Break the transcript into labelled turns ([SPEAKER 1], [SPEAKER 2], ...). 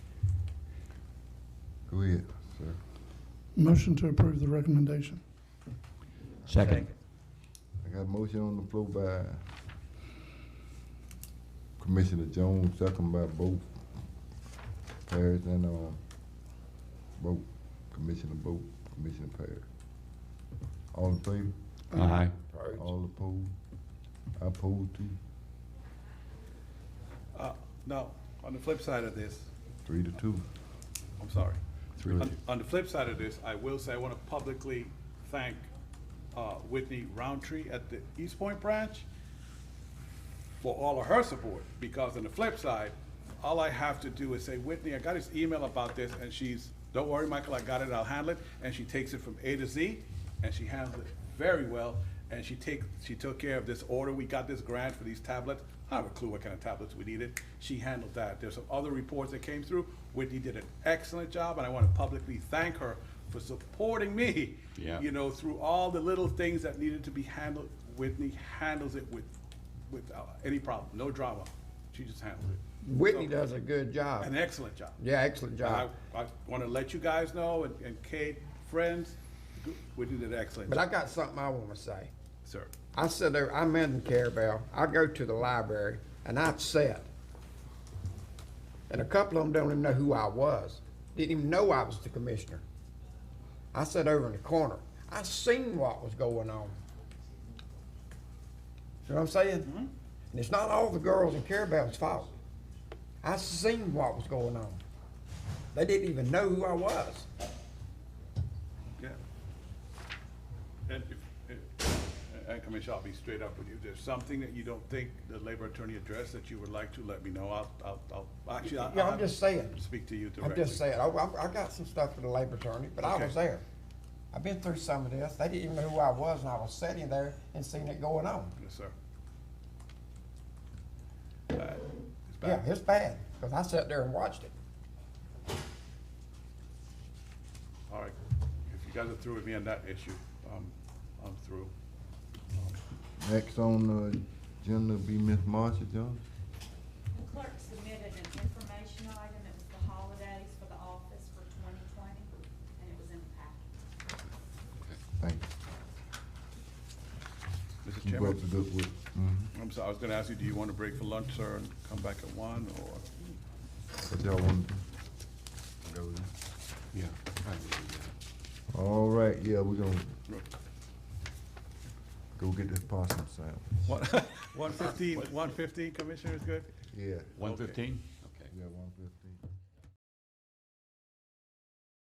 [SPEAKER 1] Go ahead, sir.
[SPEAKER 2] Motion to approve the recommendation.
[SPEAKER 3] Second.
[SPEAKER 1] I got a motion on the floor by Commissioner Jones, second by both Parrish and, uh, both, Commissioner Boat, Commissioner Parrish. All in favor?
[SPEAKER 3] Aye.
[SPEAKER 1] All opposed? I oppose too,
[SPEAKER 4] Uh, No, on the flip side of this,
[SPEAKER 1] three to two,
[SPEAKER 4] I'm sorry.
[SPEAKER 1] three to
[SPEAKER 4] On- On the flip side of this, I will say, I want to publicly thank uh, Whitney Roundtree at the East Point Branch for all of her support, because on the flip side, all I have to do is say, Whitney, I got this email about this, and she's, don't worry, Michael, I got it, I'll handle it, and she takes it from A to Z, and she handles it very well, and she take, she took care of this order, we got this grant for these tablets, I don't have a clue what kind of tablets we needed, she handled that, there's some other reports that came through, Whitney did an excellent job, and I wanna publicly thank her for supporting me.
[SPEAKER 3] Yeah.
[SPEAKER 4] You know, through all the little things that needed to be handled, Whitney handles it with without any problem, no drama. She just handled it.
[SPEAKER 5] Whitney does a good
[SPEAKER 4] An
[SPEAKER 5] job.
[SPEAKER 4] excellent job.
[SPEAKER 5] Yeah, excellent
[SPEAKER 4] And I,
[SPEAKER 5] job.
[SPEAKER 4] I want to let you guys know, and, and Kate, friends, Whitney did an excellent
[SPEAKER 5] But I
[SPEAKER 4] job,
[SPEAKER 5] got something I want to say.
[SPEAKER 4] sir.
[SPEAKER 5] I sit there, I'm in Carabel, I go to the library, and I sit. And a couple of them don't even know who I was, didn't even know I was the commissioner. I sat over in the corner, I seen what was going on. See what I'm saying? And it's not all the girls in Carabel's fault. I seen what was going on. They didn't even know who I was.
[SPEAKER 4] Yeah. And if, eh, if- and Commissioner, I'll be straight up with you. There's something that you don't think the labor attorney addressed that you would like to let me know. I'll, I'll, I'll, actually, I'll.
[SPEAKER 5] Yeah,
[SPEAKER 4] I'll
[SPEAKER 5] I'm
[SPEAKER 4] have
[SPEAKER 5] just saying.
[SPEAKER 4] to Speak to you
[SPEAKER 5] I'm
[SPEAKER 4] directly.
[SPEAKER 5] just saying, I, I I got some stuff for the labor attorney, but I
[SPEAKER 4] Okay.
[SPEAKER 5] was there. I've been through some of this. They didn't even know who I was, and I was sitting there and seeing it going on.
[SPEAKER 4] Yes, sir.
[SPEAKER 3] Uh,
[SPEAKER 4] Bad. It's
[SPEAKER 5] Yeah,
[SPEAKER 4] bad.
[SPEAKER 5] it's bad, because I sat there and watched it.
[SPEAKER 4] All right, if you guys are through with me on that issue, um, I'm through.
[SPEAKER 1] two. Next on the agenda be Miss Marcia Jones.
[SPEAKER 6] The clerk submitted an information item, it was the holidays for the office for twenty twenty, and it was in the packet.
[SPEAKER 1] Thank you.
[SPEAKER 4] Mr.
[SPEAKER 1] Keep up the
[SPEAKER 4] Chairman,
[SPEAKER 1] good work. Mhm.
[SPEAKER 4] I'm sorry, I was gonna ask you, do you want to break for lunch, sir, and come back at one, or?
[SPEAKER 1] What y'all want to do? Go with it.
[SPEAKER 3] Yeah.
[SPEAKER 1] All right, yeah, we're gonna go get this possum sound.
[SPEAKER 4] One fifteen, one fifteen, Commissioner, is good?
[SPEAKER 1] Yeah.
[SPEAKER 3] One fifteen? Okay.
[SPEAKER 1] Yeah, one fifty.